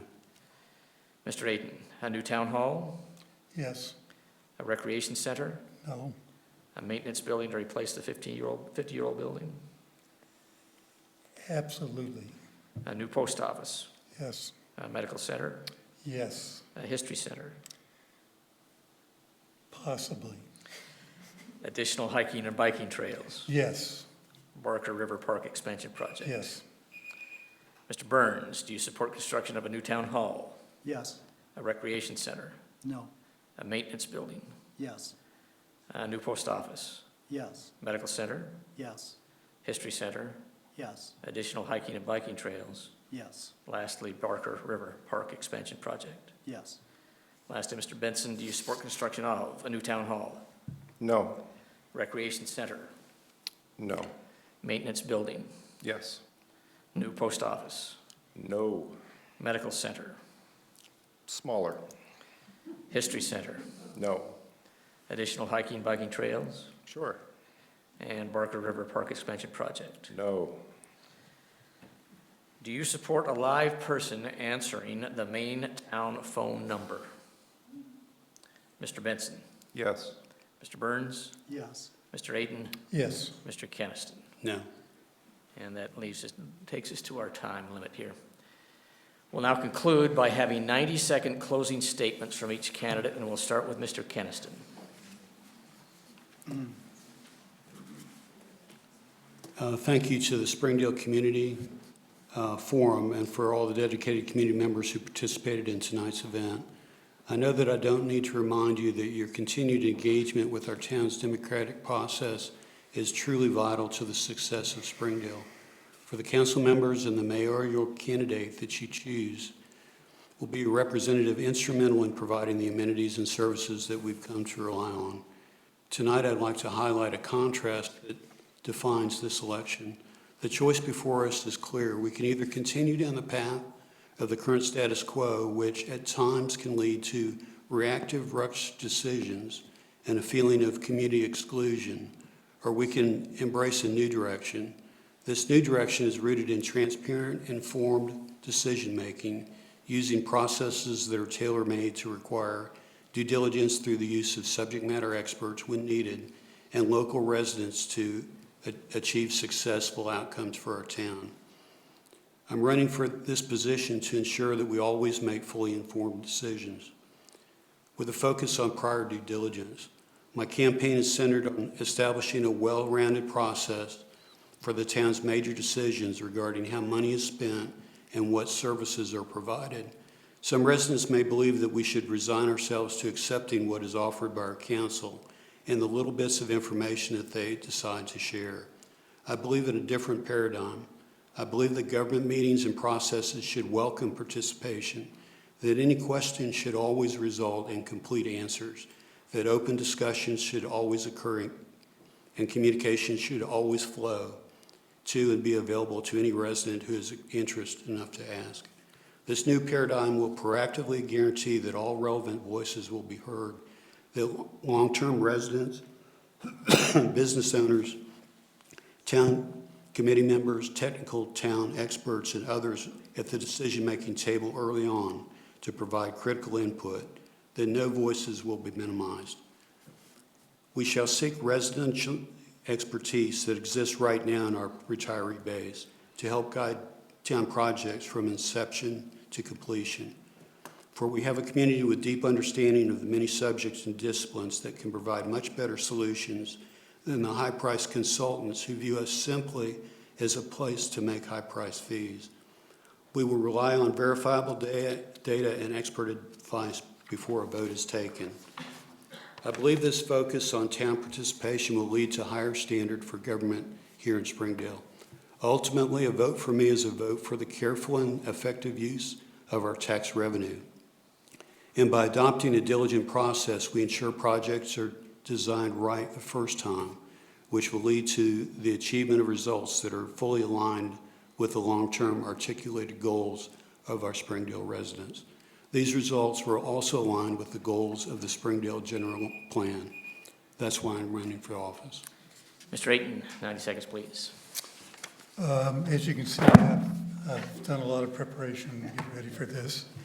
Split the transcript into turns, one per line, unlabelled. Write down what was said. Mr. Ayton, a new town hall,
Yes,
a recreation center,
no,
a maintenance building to replace the 15-year-old, 50-year-old building,
absolutely,
a new post office,
yes,
a medical center,
yes,
a history center,
possibly,
additional hiking and biking trails,
yes,
Barker River Park expansion project.
yes,
Mr. Burns, do you support construction of a new town hall,
Yes,
a recreation center,
no,
a maintenance building,
yes,
a new post office,
yes,
medical center,
yes,
history center,
yes,
additional hiking and biking trails,
yes,
lastly, Barker River Park expansion project.
yes,
Lastly, Mr. Benson, do you support construction of a new town hall,
No,
recreation center,
no,
maintenance building,
yes,
new post office,
no,
medical center,
smaller,
history center,
no,
additional hiking, biking trails,
sure,
and Barker River Park expansion project.
no,
Do you support a live person answering the main town phone number? Mr. Benson,
yes,
Mr. Burns,
yes.
Mr. Ayton,
yes.
Mr. Keniston.
No.
And that leaves us, takes us to our time limit here. We'll now conclude by having 90-second closing statements from each candidate, and we'll start with Mr. Keniston.
Uh, Thank you to the Springdale Community uh, Forum and for all the dedicated community members who participated in tonight's event. I know that I don't need to remind you that your continued engagement with our town's democratic process is truly vital to the success of Springdale. For the council members and the mayoral candidate that you choose will be a representative instrumental in providing the amenities and services that we've come to rely on. Tonight, I'd like to highlight a contrast that defines this election. The choice before us is clear. We can either continue down the path of the current status quo, which at times can lead to reactive, rushed decisions and a feeling of community exclusion, or we can embrace a new direction. This new direction is rooted in transparent, informed decision-making using processes that are tailor-made to require due diligence through the use of subject matter experts when needed, and local residents to a- achieve successful outcomes for our town. I'm running for this position to ensure that we always make fully informed decisions with a focus on prior due diligence. My campaign is centered on establishing a well-rounded process for the town's major decisions regarding how money is spent and what services are provided. Some residents may believe that we should resign ourselves to accepting what is offered by our council and the little bits of information that they decide to share. I believe in a different paradigm. I believe that government meetings and processes should welcome participation, that any question should always result in complete answers, that open discussions should always occur in and communication should always flow to and be available to any resident who is interested enough to ask. This new paradigm will proactively guarantee that all relevant voices will be heard, that long-term residents, business owners, town committee members, technical town experts, and others at the decision-making table early on to provide critical input, that no voices will be minimized. We shall seek residential expertise that exists right now in our retiree base to help guide town projects from inception to completion. For we have a community with deep understanding of the many subjects and disciplines that can provide much better solutions than the high-priced consultants who view us simply as a place to make high-priced fees. We will rely on verifiable da- data and expert advice before a vote is taken. I believe this focus on town participation will lead to higher standard for government here in Springdale. Ultimately, a vote for me is a vote for the careful and effective use of our tax revenue. And by adopting a diligent process, we ensure projects are designed right the first time, which will lead to the achievement of results that are fully aligned with the long-term articulated goals of our Springdale residents. These results were also aligned with the goals of the Springdale General Plan. That's why I'm running for office.
Mr. Ayton, 90 seconds, please.
Um, As you can see, I've I've done a lot of preparation to get ready for this.